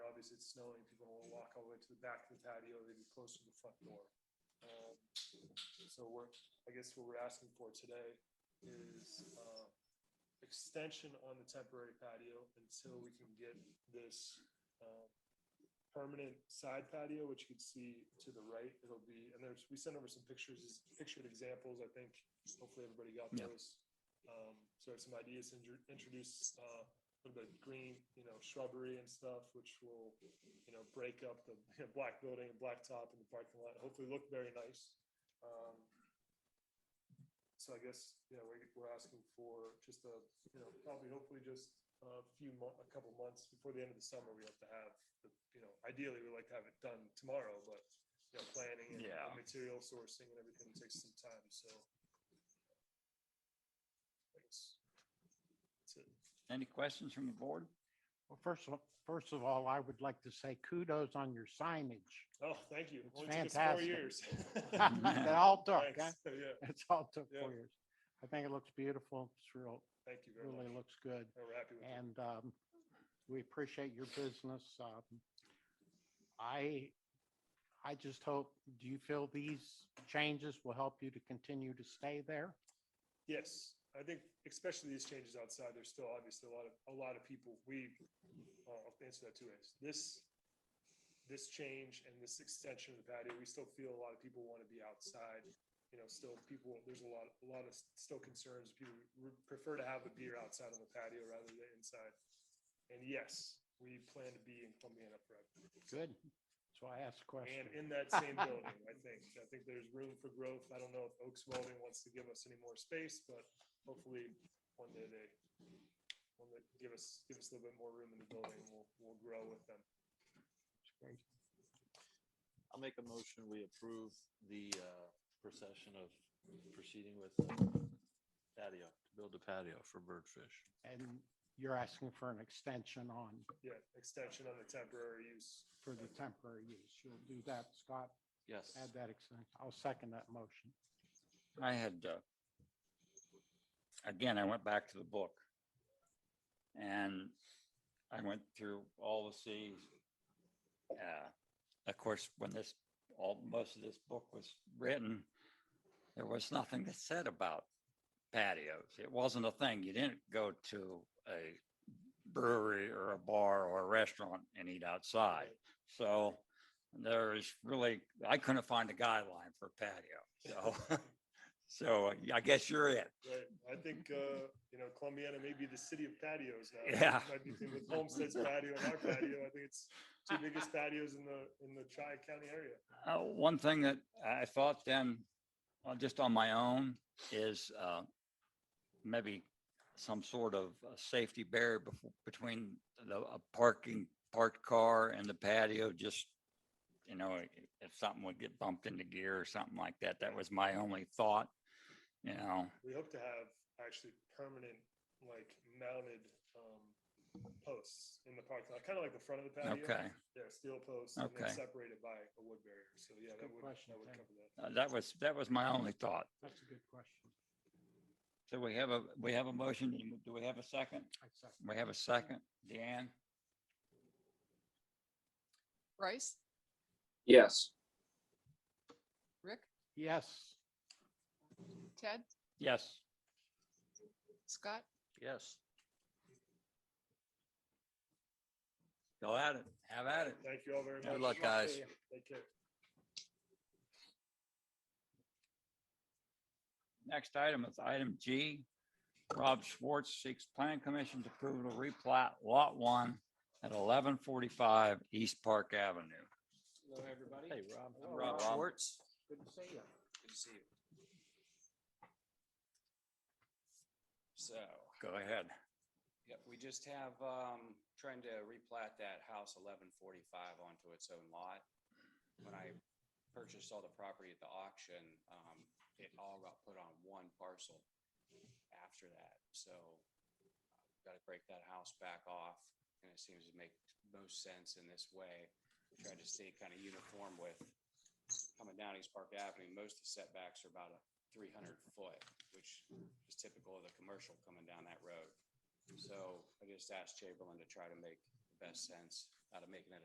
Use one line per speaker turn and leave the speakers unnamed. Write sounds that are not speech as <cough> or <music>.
obviously it's snowing, people don't wanna walk all the way to the back of the patio, they'd be close to the front door. Um, So we're, I guess what we're asking for today is, uh, extension on the temporary patio until we can get this, um, permanent side patio, which you can see to the right. It'll be, and there's, we sent over some pictures, pictured examples, I think. Hopefully everybody got
Yeah.
those. Um, so I have some ideas to intro- introduce, uh, a little bit of green, you know, shrubbery and stuff, which will, you know, break up the <laughs> you know, black building and black top and the parking lot. Hopefully look very nice. Um, so I guess, yeah, we're, we're asking for just a, you know, probably hopefully just a few mo- a couple months before the end of the summer, we have to have the- you know, ideally, we'd like to have it done tomorrow, but, you know, planning and
Yeah.
and material sourcing and everything takes some time, so. Thanks. That's it.
Any questions from the board?
Well, first of, first of all, I would like to say kudos on your signage.
Oh, thank you.
It's
Only took us four
fantastic. <laughs>
years. <laughs>
That all took, huh?
Thanks. Yeah,
It's all took
Yeah.
four years. I think it looks beautiful. It's real,
thank you very
really
much.
looks good.
Oh, We're happy with it.
And um, we appreciate your business. Um, I, I just hope, do you feel these changes will help you to continue to stay there?
Yes, I think especially these changes outside, there's still obviously a lot of, a lot of people, we, uh, I'll answer that two ways. This, this change and this extension of the patio, we still feel a lot of people want to be outside. You know, still people, there's a lot, a lot of still concerns, people would prefer to have a beer outside on the patio rather than inside. And yes, we plan to be in Columbiana forever.
Good. So I asked a question.
And in that same building, I think, I think there's room for growth. I don't know if Oaks Welding wants to give us any more space, but hopefully one day they, one day give us, give us a little bit more room in the building, and we'll, we'll grow with them.
I'll make a motion, we approve the uh, procession of proceeding with the patio, to build a patio for birdfish.
And you're asking for an extension on,
Yeah, extension on the temporary use.
for the temporary use. You'll do that, Scott?
Yes.
Add that extension. I'll second that motion.
I had, uh, again, I went back to the book. And I went through all the scenes. Uh, Of course, when this, all, most of this book was written, there was nothing that said about patios. It wasn't a thing. You didn't go to a brewery or a bar or a restaurant and eat outside. So there is really, I couldn't find a guideline for patio, so. <laughs> So uh, I guess you're it.
Right, I think, uh, you know, Columbiana may be the city of patios now.
Yeah.
Might be With Homestead's patio and our patio, I think it's two biggest patios in the, in the tri-county area.
Uh, one thing that I thought then, uh, just on my own, is, uh, maybe some sort of uh, safety barrier bef- between the a parking, parked car and the patio, just, you know, i- if something would get bumped into gear or something like that, that was my only thought, you know,
we hope to have actually permanent, like mounted, um, posts in the parking lot, kind of like the front of the patio.
okay.
Uh, Yeah, steel posts and then
Okay.
separated by a wood barrier. So yeah, that
Good
would,
question,
that would
Ted.
cover that.
Uh, That was, that was my only thought.
That's a good question.
So we have a, we have a motion. Do we have a second?
I second.
We have a second. Deanne?
Bryce,
Yes.
Rick,
Yes,
Ted,
Yes.
Scott,
Yes.
Go at it. Have at it.
Thank you all very much.
Good luck, guys.
Take care.
Next item is item G. Rob Schwartz seeks plan commission's approval to replat lot one at eleven forty-five East Park Avenue.
Hello, everybody.
Hey, Rob.
Hello,
Rob
Rob.
Schwartz.
Good to see you. Good to see you. So,
Go ahead.
yep, we just have, um, trying to replat that house eleven forty-five onto its own lot. When I purchased all the property at the auction, um, it all got put on one parcel after that, so got to break that house back off, and it seems to make most sense in this way. Try to stay kind of uniform with coming down East Park Avenue, most of the setbacks are about a three hundred foot, which is typical of the commercial coming down that road. So I just asked Chamberlain to try to make the best sense out of making it